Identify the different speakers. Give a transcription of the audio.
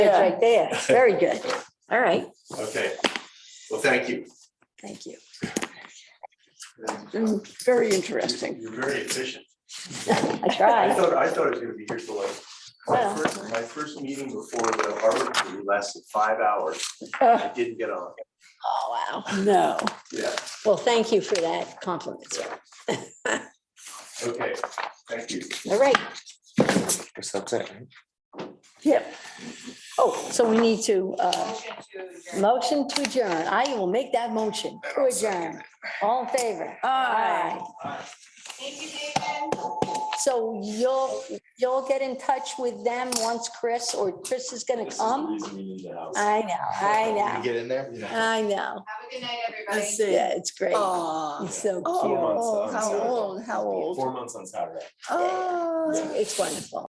Speaker 1: It's right there. Very good. All right.
Speaker 2: Okay, well, thank you.
Speaker 1: Thank you.
Speaker 3: Mm, Very interesting.
Speaker 2: You're very efficient.
Speaker 1: I
Speaker 2: I
Speaker 1: tried.
Speaker 2: thought, I thought I was gonna be here till like, my
Speaker 1: Well.
Speaker 2: first, my first meeting before the Harvard committee lasted five hours.
Speaker 1: Oh,
Speaker 2: I didn't get on.
Speaker 1: wow.
Speaker 3: No.
Speaker 2: Yeah,
Speaker 1: Well, thank you for that compliment. sir.
Speaker 2: okay, thank you.
Speaker 1: All right.
Speaker 4: Guess that's it.
Speaker 3: Yep.
Speaker 1: Oh, so we need to, uh, motion to adjourn. I will make that motion to adjourn. All in favor?
Speaker 3: Aye.
Speaker 1: So you'll, you'll get in touch with them once Chris or Chris is gonna come? um, I know, I know,
Speaker 4: Get in there?
Speaker 1: I know.
Speaker 5: Have a good night, everybody.
Speaker 3: Let's see.
Speaker 1: Yeah, it's great.
Speaker 3: Aw.
Speaker 1: It's so cute.
Speaker 3: Oh, how old, how old?
Speaker 6: months on Saturday.
Speaker 3: Oh.
Speaker 1: It's wonderful.